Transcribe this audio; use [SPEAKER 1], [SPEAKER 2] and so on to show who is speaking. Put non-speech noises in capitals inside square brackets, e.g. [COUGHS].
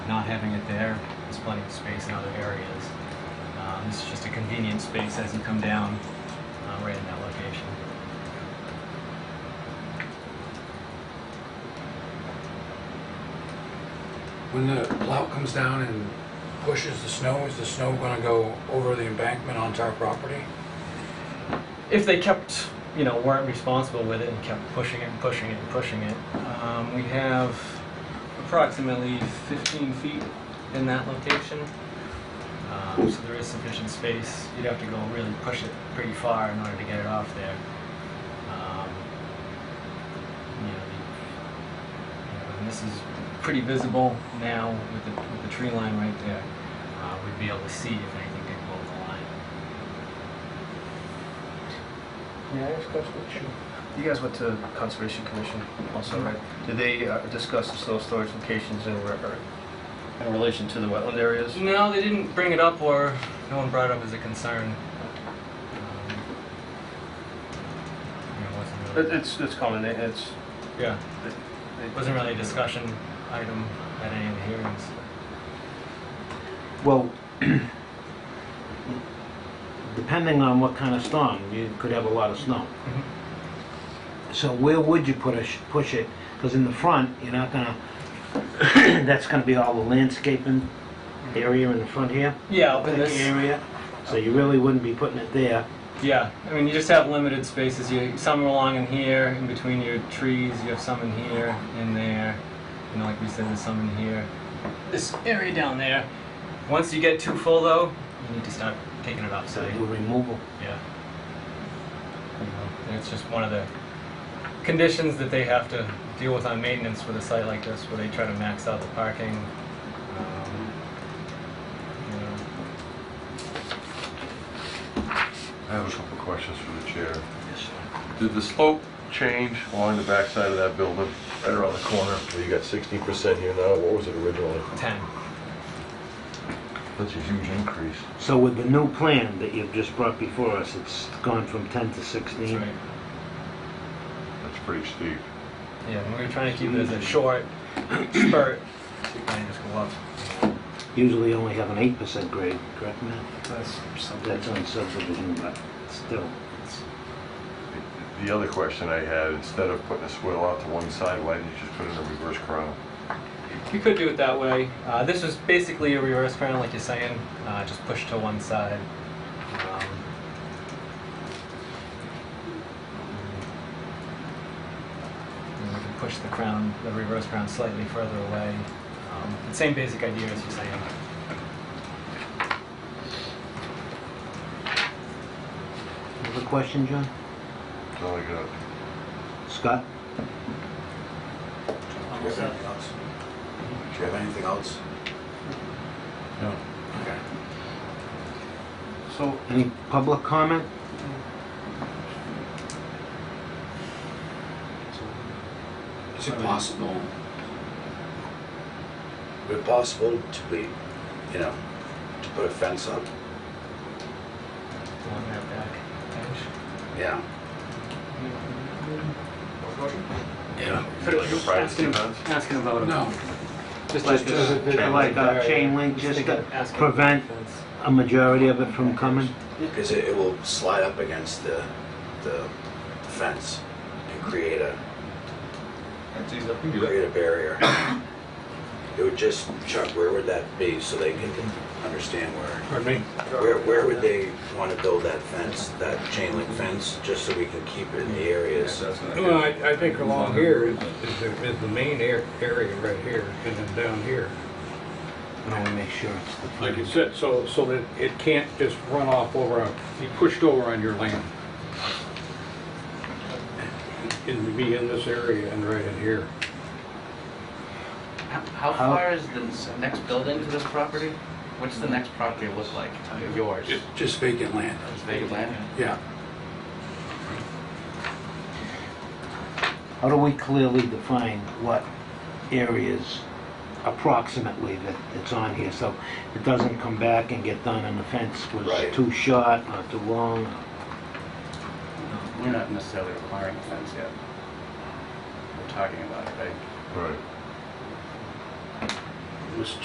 [SPEAKER 1] not having it there, there's plenty of space in other areas. Um, This is just a convenient space as you come down, uh, right in that location.
[SPEAKER 2] When the plow comes down and pushes the snow, is the snow gonna go over the embankment onto our property?
[SPEAKER 1] If they kept, you know, weren't responsible with it and kept pushing it and pushing it and pushing it, um, we have approximately 15 feet in that location. Um, So there is sufficient space. You'd have to go really push it pretty far in order to get it off there. Um, You know, the- you know, And this is pretty visible now with the, with the tree line right there. Uh, We'd be able to see if anything did go over the line.
[SPEAKER 3] May I ask a question? You guys went to Conservation Commission also,
[SPEAKER 1] Mhm.
[SPEAKER 3] right? Did they uh, discuss the soil storage locations in re- or in relation to the wetland areas?
[SPEAKER 1] No, they didn't bring it up, or no one brought it up as a concern. Um, yeah, it wasn't
[SPEAKER 3] It-
[SPEAKER 1] really-
[SPEAKER 3] It's, it's common, it- it's,
[SPEAKER 1] Yeah,
[SPEAKER 3] it-
[SPEAKER 1] it wasn't really a discussion item at any of the hearings.
[SPEAKER 4] Well, [CLEARS THROAT] depending on what kind of storm, you could have a lot of snow.
[SPEAKER 1] Mm-hmm.
[SPEAKER 4] So where would you put a, sh- push it? Because in the front, you're not gonna, [COUGHS] that's gonna be all the landscaping area in the front here,
[SPEAKER 1] Yeah, up in
[SPEAKER 4] thick
[SPEAKER 1] this,
[SPEAKER 4] area. So you really wouldn't be putting it there.
[SPEAKER 1] yeah, I mean, you just have limited spaces, you, some are along in here, in between your trees, you have some in here, in there, you know, like we said, there's some in here. This area down there, once you get too full though, you need to start taking it
[SPEAKER 4] So
[SPEAKER 1] outside.
[SPEAKER 4] you removal.
[SPEAKER 1] Yeah. You know, and it's just one of the conditions that they have to deal with on maintenance with a site like this, where they try to max out the parking. um, you know.
[SPEAKER 5] I have a couple of questions for the chair. Did the slope change along the backside of that building, right around the corner? where You got sixty percent here now, what was it originally?
[SPEAKER 1] Ten.
[SPEAKER 5] That's a huge increase.
[SPEAKER 4] So with the new plan that you've just brought before us, it's gone from 10 to 16.
[SPEAKER 1] That's right.
[SPEAKER 5] That's pretty steep.
[SPEAKER 1] Yeah, and we were trying to keep it as a short spurt. And just go up.
[SPEAKER 4] Usually only have an 8% grade, correct, Matt?
[SPEAKER 3] that's something.
[SPEAKER 4] That's on subdivision, but still.
[SPEAKER 5] The- The other question I had, instead of putting a swale out to one side, why didn't you just put in a reverse crown?
[SPEAKER 1] You could do it that way. Uh, this was basically a reverse crown, like you're saying, uh, just push to one side. Um, and we can push the crown, the reverse crown, slightly further away. Um, the same basic idea as you're saying.
[SPEAKER 4] Another question, John?
[SPEAKER 5] That's all I got.
[SPEAKER 4] Scott?
[SPEAKER 6] Do you have anything else? Do you have anything else?
[SPEAKER 2] No.
[SPEAKER 6] Okay.
[SPEAKER 3] So,
[SPEAKER 4] Any public comment?
[SPEAKER 6] Is it possible? Is it possible to be, you know, to put a fence up?
[SPEAKER 1] Along that back edge.
[SPEAKER 6] Yeah. Yeah.
[SPEAKER 5] Is it Like a privacy fence?
[SPEAKER 1] Asking about
[SPEAKER 2] No.
[SPEAKER 1] Just
[SPEAKER 4] Like, uh, like uh, chain link, just to prevent a majority of it from coming?
[SPEAKER 6] Because it, it will slide up against the, the the fence and create a, create a barrier. [COUGHS] It would just, Chuck, where would that be so they can understand where?
[SPEAKER 2] Pardon me?
[SPEAKER 6] Where, where would they want to build that fence, that chain link fence, just so we can keep it in the areas?
[SPEAKER 2] Well, I, I think along here is, is the, is the main air, area right here, and then down here.
[SPEAKER 4] And I wanna make sure it's the
[SPEAKER 2] Like you
[SPEAKER 4] front.
[SPEAKER 2] said, so, so that it can't just run off over, on- be pushed over on your land. And be in this area and right in here.
[SPEAKER 7] How- How
[SPEAKER 4] How-
[SPEAKER 7] far is the s- next building to this property? What's the next property look like? Yours? Is
[SPEAKER 2] Just vacant land.
[SPEAKER 7] vacant land?
[SPEAKER 2] Yeah.
[SPEAKER 4] How do we clearly define what areas approximately that it's on here? So it doesn't come back and get done and the fence
[SPEAKER 6] Right.
[SPEAKER 4] was too short or too long.
[SPEAKER 8] We're not necessarily requiring a fence yet. We're talking about it, right?
[SPEAKER 5] Right.
[SPEAKER 3] Mr.